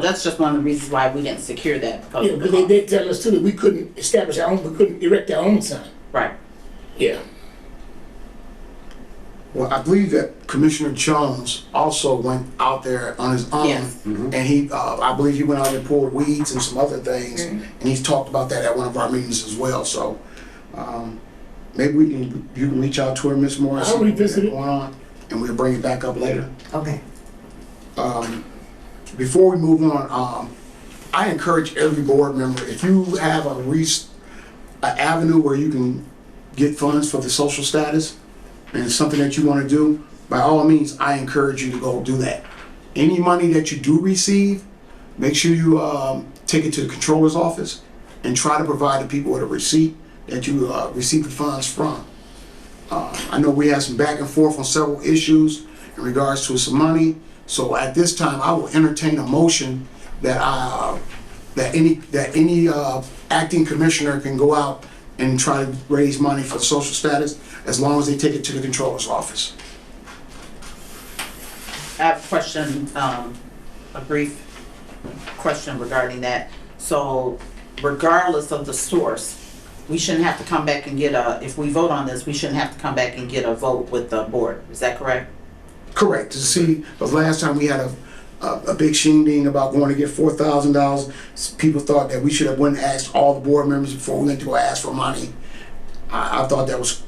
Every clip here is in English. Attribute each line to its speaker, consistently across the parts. Speaker 1: That's just one of the reasons why we didn't secure that because
Speaker 2: Yeah,
Speaker 1: of the
Speaker 2: but they
Speaker 1: cost.
Speaker 2: did tell us too that we couldn't establish our own, we couldn't erect our own sign.
Speaker 1: Right.
Speaker 2: Yeah.
Speaker 3: Well, I believe that Commissioner Jones also went out there on his own.
Speaker 1: Yes.
Speaker 3: And he, uh, I believe he went out and poured weeds and some other things. And he's talked about that at one of our meetings as well, so, um, maybe we can, you can reach out to her, Ms. Morris.
Speaker 2: I'll
Speaker 3: see what's
Speaker 2: revisit it.
Speaker 3: Going on, and we'll bring it back up later.
Speaker 4: Okay.
Speaker 3: Um, before we move on, um, I encourage every board member, if you have a reach, an avenue where you can get funds for the social status, and it's something that you wanna do, by all means, I encourage you to go do that. Any money that you do receive, make sure you, um, take it to the controller's office and try to provide the people with a receipt that you, uh, received the funds from. Uh, I know we had some back and forth on several issues in regards to some money. So at this time, I will entertain a motion that I, that any, that any, uh, acting commissioner can go out and try to raise money for social status as long as they take it to the controller's office.
Speaker 1: I have a question, um, a brief question regarding that. So regardless of the source, we shouldn't have to come back and get a, if we vote on this, we shouldn't have to come back and get a vote with the board. Is that correct?
Speaker 3: Correct, to see, but last time we had a, a, a big shindig about going to get four thousand dollars. People thought that we should have went and asked all the board members before we went to go ask for money. I, I thought that was,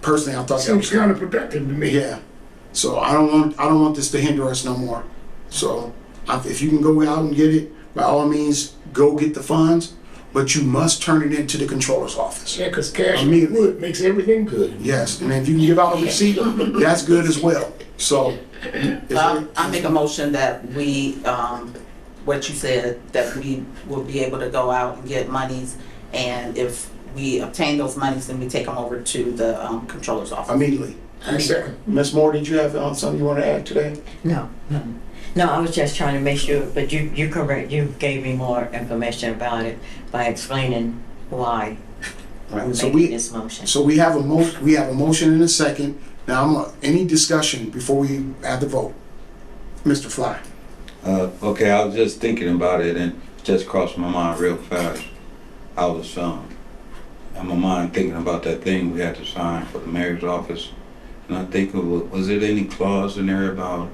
Speaker 3: personally, I thought that was.
Speaker 2: Seems counterproductive to me.
Speaker 3: Yeah. So I don't want I don't want this to hinder us no more. So I- if you can go out and get it, by all means, go get the funds, but you must turn it into the controller's office.
Speaker 2: Yeah, cause cash
Speaker 3: I mean-
Speaker 2: and wood makes everything good.
Speaker 3: Yes, and if you can give out a receipt, that's good as well. So is
Speaker 1: Um,
Speaker 3: there-
Speaker 1: I make a motion that we, um, what you said, that we will be able to go out and get monies. And if we obtain those monies, then we take them over to the, um, controller's office.
Speaker 3: immediately.
Speaker 2: I second.
Speaker 3: Ms. Moore, did you have uh, something you want to add today?
Speaker 4: No, no. No, I was just trying to make sure, but you, you correct, you gave me more information about it by explaining why we're
Speaker 3: Right. So
Speaker 4: making
Speaker 3: we
Speaker 4: this motion.
Speaker 3: so we have a mo we have a motion and a second. Now I'm uh, any discussion before we have the vote. Mr. Fly.
Speaker 5: Uh, okay, I was just thinking about it and just crossed my mind real fast. I was, um, in my mind thinking about that thing we had to sign for the mayor's office. And I think, it wa- was it any clause in there about,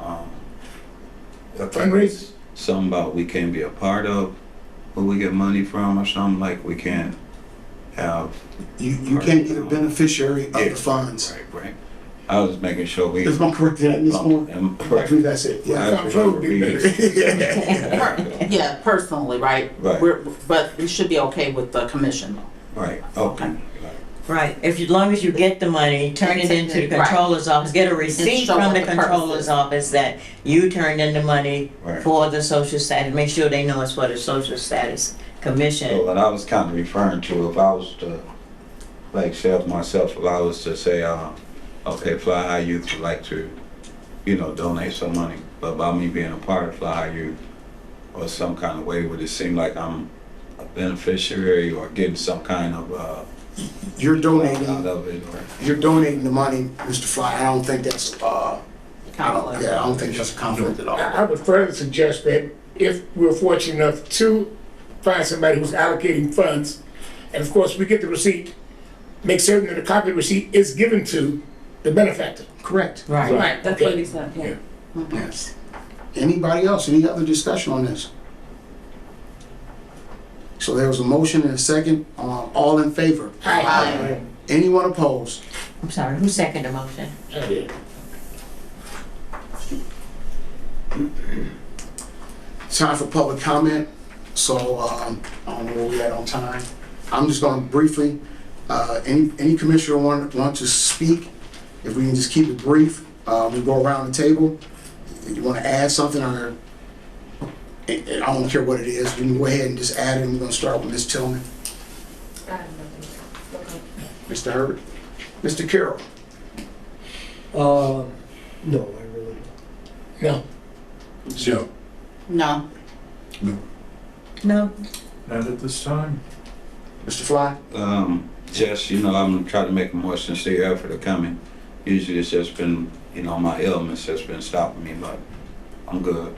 Speaker 5: um, I think
Speaker 2: Fundraise?
Speaker 5: Something about we can't be a part of, who we get money from or something like we can't have.
Speaker 3: You, you can't be the beneficiary of the funds.
Speaker 5: Right, right. I was making sure we.
Speaker 3: Is my correct in that, Ms. Moore?
Speaker 5: Um,
Speaker 3: I
Speaker 5: Correct.
Speaker 3: believe that's it, yeah.
Speaker 5: I remember reading.
Speaker 1: Per- Yeah, personally, right?
Speaker 5: Right.
Speaker 1: We're, but we should be okay with the commission though.
Speaker 5: Right, okay.
Speaker 4: Right, if, you- as long as you get the money, turn it into the
Speaker 1: Right.
Speaker 4: controller's office, get a receipt
Speaker 1: show
Speaker 4: from
Speaker 1: what
Speaker 4: the
Speaker 1: the purpose is.
Speaker 4: controller's office that you turned in the money
Speaker 5: Right.
Speaker 4: for the social status, make sure they know it's for the social status
Speaker 5: So uh,
Speaker 4: commission.
Speaker 5: what I was kind of referring to, if I was to, like, self myself, if I was to say, uh, okay, Fly High Youth would like to, you know, donate some money, but by me being a part of Fly High Youth, or some kind of way, would it seem like I'm a beneficiary or getting some kind of, uh,
Speaker 3: You're
Speaker 5: out
Speaker 3: donating,
Speaker 5: of it, or?
Speaker 3: you're donating the money, Mr. Fly, I don't think that's, uh, I don't, yeah, I don't think that's a conflict at all.
Speaker 2: I, I would further suggest that if we're fortunate enough to find somebody who's allocating funds, and of course, we get the receipt, make certain that a copy of the receipt is given to the benefactor.
Speaker 3: Correct.
Speaker 4: Right,
Speaker 2: Right, okay.
Speaker 1: said,
Speaker 2: yeah.
Speaker 3: Yes. Anybody else, any other discussion on this? So there was a motion and a second, uh, all in favor?
Speaker 1: Aye.
Speaker 3: Anyone opposed?
Speaker 4: I'm sorry, who seconded the motion?
Speaker 2: Aye.
Speaker 3: Time for public comment, so, um, I don't know where we at on time. I'm just gonna briefly, uh, any, any commissioner want, want to speak? If we can just keep it brief, uh, we go around the table. If you wanna add something or, I, I don't care what it is, we can go ahead and just add it, and we're gonna start with Ms. Tillman. Mr. Herbert? Mr. Carroll?
Speaker 6: Uh, no, I really don't.
Speaker 2: No,
Speaker 7: Joe,
Speaker 1: No,
Speaker 4: No,
Speaker 7: not at this time.
Speaker 3: Mr. Fly?
Speaker 5: um, just, you know, I'm trying to make a more sincere effort of coming. Usually it's just been, you know, my illness has been stopping me, but I'm good.